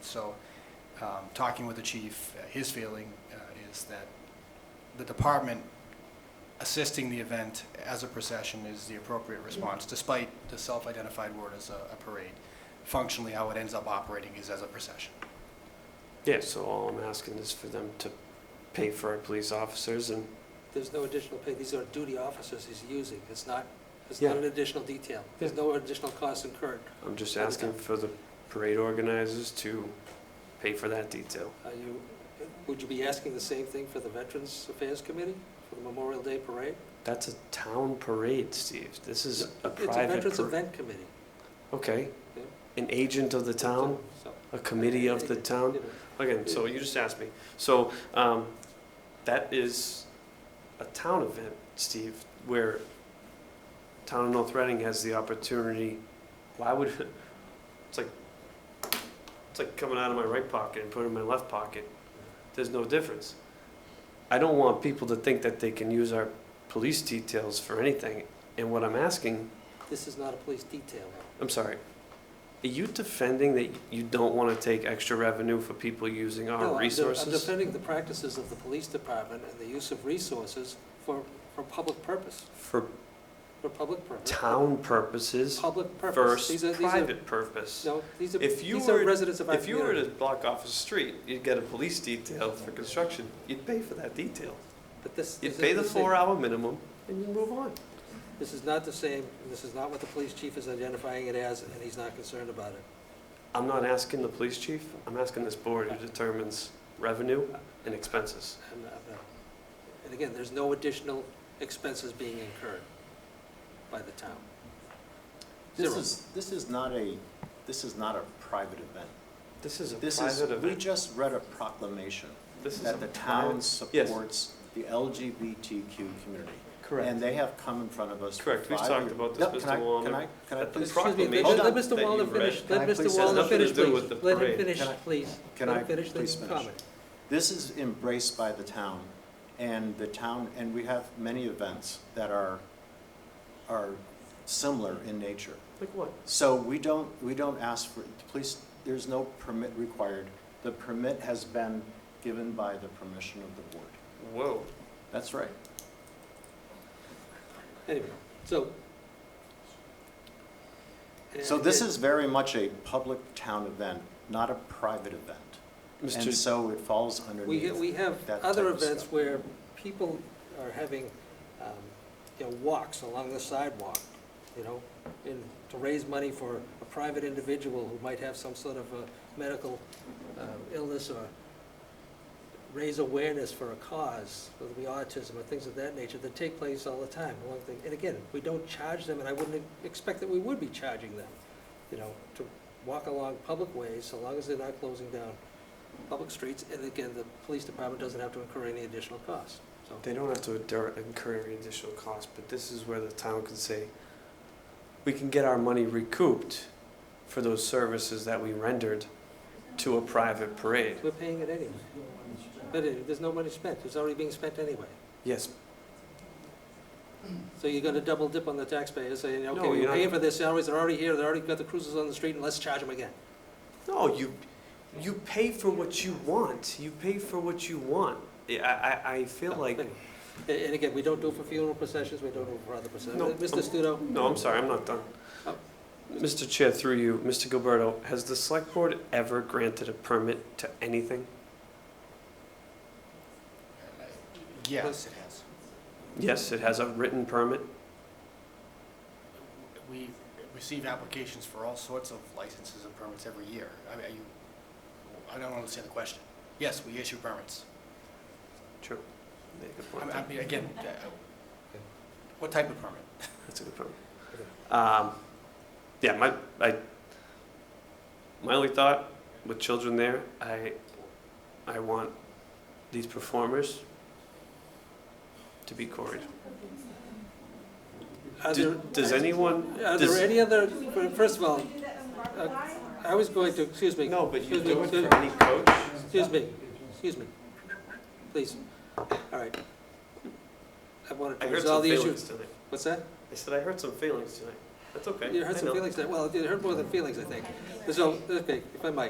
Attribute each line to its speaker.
Speaker 1: So, um, talking with the chief, uh, his feeling uh, is that the department assisting the event as a procession is the appropriate response, despite the self-identified word as a a parade. Functionally, how it ends up operating is as a procession.
Speaker 2: Yeah, so all I'm asking is for them to pay for our police officers and,
Speaker 3: There's no additional pay, these are duty officers he's using, it's not, it's not
Speaker 2: Yeah.
Speaker 3: an additional detail. There's no additional cost incurred.
Speaker 2: I'm just asking for the parade organizers to pay for that detail.
Speaker 3: Are you, would you be asking the same thing for the Veterans Affairs Committee, for the Memorial Day Parade?
Speaker 2: That's a town parade, Steve. This is a
Speaker 3: It's a
Speaker 2: private
Speaker 3: Veterans
Speaker 2: parade.
Speaker 3: Event Committee.
Speaker 2: Okay.
Speaker 3: Yeah.
Speaker 2: An agent of the town,
Speaker 3: So,
Speaker 2: a committee of the
Speaker 3: you
Speaker 2: town.
Speaker 3: know,
Speaker 2: Okay, so you just asked me. So, um, that is a town event, Steve, where town of North Reading has the opportunity. Why would, it's like, it's like coming out of my right pocket and putting it in my left pocket. There's no difference. I don't want people to think that they can use our police details for anything. And what I'm asking,
Speaker 3: This is not a police detail.
Speaker 2: I'm sorry, are you defending that you don't want to take extra revenue for people using
Speaker 3: No, I'm
Speaker 2: our
Speaker 3: de-
Speaker 2: resources?
Speaker 3: I'm defending the practices of the police department and the use of resources for, for public purpose,
Speaker 2: for
Speaker 3: for public purpose.
Speaker 2: town purposes
Speaker 3: Public purpose. These are-
Speaker 2: versus
Speaker 3: these are-
Speaker 2: private purpose.
Speaker 3: No, these are,
Speaker 2: If you
Speaker 3: these are
Speaker 2: were-
Speaker 3: residents of our
Speaker 2: If you were
Speaker 3: community.
Speaker 2: to block off a street, you'd get a police detail for construction, you'd pay for that detail.
Speaker 3: But this.
Speaker 2: You'd
Speaker 3: this
Speaker 2: pay the
Speaker 3: isn't same.
Speaker 2: four-hour minimum and you move on.
Speaker 3: This is not the same, and this is not what the police chief is identifying it as, and he's not concerned about it.
Speaker 2: I'm not asking the police chief, I'm asking this board who determines revenue and expenses.
Speaker 3: I'm not- I'm not- And again, there's no additional expenses being incurred by the town.
Speaker 4: This
Speaker 3: Zero.
Speaker 4: is, this is not a, this is not a private event.
Speaker 2: This is a
Speaker 4: This is,
Speaker 2: private
Speaker 4: we
Speaker 2: event.
Speaker 4: just read a proclamation
Speaker 2: This is a
Speaker 4: that the town
Speaker 2: private-
Speaker 4: supports the LGBTQ community. And
Speaker 2: Correct.
Speaker 4: they have come in front of us for
Speaker 2: Correct. We've
Speaker 4: five
Speaker 2: talked
Speaker 4: years.
Speaker 2: about this,
Speaker 4: No, can
Speaker 2: Mr.
Speaker 4: I-
Speaker 2: Wallner,
Speaker 4: Can I, can I
Speaker 2: that the
Speaker 4: please?
Speaker 3: Excuse me,
Speaker 2: proclamation
Speaker 3: let-
Speaker 2: that
Speaker 3: Let Mr.
Speaker 2: you
Speaker 3: Wallner
Speaker 2: read.
Speaker 3: finish,
Speaker 4: Can I
Speaker 3: let Mr.
Speaker 4: please-
Speaker 2: Has
Speaker 3: Wallner
Speaker 2: nothing to
Speaker 3: finish,
Speaker 2: do
Speaker 3: please.
Speaker 2: with the
Speaker 3: Let him
Speaker 2: parade.
Speaker 3: finish,
Speaker 4: Can I-
Speaker 3: please.
Speaker 4: can
Speaker 3: Let
Speaker 4: I
Speaker 3: him finish the
Speaker 4: please finish?
Speaker 3: comment.
Speaker 4: This is embraced by the town, and the town, and we have many events that are, are similar in nature.
Speaker 2: Like what?
Speaker 4: So we don't, we don't ask for, the police, there's no permit required. The permit has been given by the permission of the board.
Speaker 2: Whoa.
Speaker 4: That's right.
Speaker 3: Anyway, so.
Speaker 4: So this is very much a public town event, not a private event. And
Speaker 2: Mr.
Speaker 4: so it falls
Speaker 3: We,
Speaker 4: underneath.
Speaker 3: we have
Speaker 4: that
Speaker 3: other
Speaker 4: type of
Speaker 3: events
Speaker 4: stuff.
Speaker 3: where people are having, um, you know, walks along the sidewalk, you know, and to raise money for a private individual who might have some sort of a medical uh, illness or raise awareness for a cause, whether it be autism or things of that nature, that take place all the time. One thing- And again, we don't charge them, and I wouldn't expect that we would be charging them, you know, to walk along public ways, so long as they're not closing down public streets, and again, the police department doesn't have to incur any additional costs, so.
Speaker 2: They don't have to endure- incur any additional costs, but this is where the town can say, we can get our money recouped for those services that we rendered to a private parade.
Speaker 3: We're paying it anyway. But it- there's no money spent, it's already being spent anyway.
Speaker 2: Yes,
Speaker 3: So you're gonna double dip on the taxpayers, saying, okay,
Speaker 2: No, you're
Speaker 3: we're
Speaker 2: not-
Speaker 3: paying for their salaries, they're already here, they already got the cruisers on the street, and let's charge them again.
Speaker 2: no, you, you pay for what you want, you pay for what you want. I, I, I feel like,
Speaker 3: And and again, we don't do it for funeral processions, we don't do it for other processions.
Speaker 2: No,
Speaker 3: Mr. Studo?
Speaker 2: no, I'm sorry, I'm not done.
Speaker 3: Oh.
Speaker 2: Mr. Chair, through you, Mr. Gilberto, has the select board ever granted a permit to anything?
Speaker 1: Yes, it has.
Speaker 2: Yes, it has a written permit.
Speaker 1: We receive applications for all sorts of licenses and permits every year. I mean, are you, I don't understand the question. Yes, we issue permits.
Speaker 2: True. Yeah, good
Speaker 1: I
Speaker 2: point.
Speaker 1: mean, I mean, again, uh, what type of permit?
Speaker 2: That's a good point. Um, yeah, my, I, my only thought with children there, I, I want these performers to be quarried.
Speaker 3: Are
Speaker 2: Do-
Speaker 3: there,
Speaker 2: Does anyone?
Speaker 3: are
Speaker 2: does-
Speaker 3: there any other, first of all, uh, I was going to, excuse me.
Speaker 2: No, but you
Speaker 3: excuse me,
Speaker 2: do it
Speaker 3: excuse-
Speaker 2: for any coach.
Speaker 3: Excuse me, excuse me, please, all right. I wanted
Speaker 2: I
Speaker 3: to
Speaker 2: heard
Speaker 3: resolve
Speaker 2: some
Speaker 3: the issue.
Speaker 2: feelings tonight.
Speaker 3: What's that?
Speaker 2: I said I heard some feelings tonight. That's okay.
Speaker 3: You
Speaker 2: I
Speaker 3: heard some
Speaker 2: know.
Speaker 3: feelings, there. well, you heard more than feelings, I think. So, okay, if I might.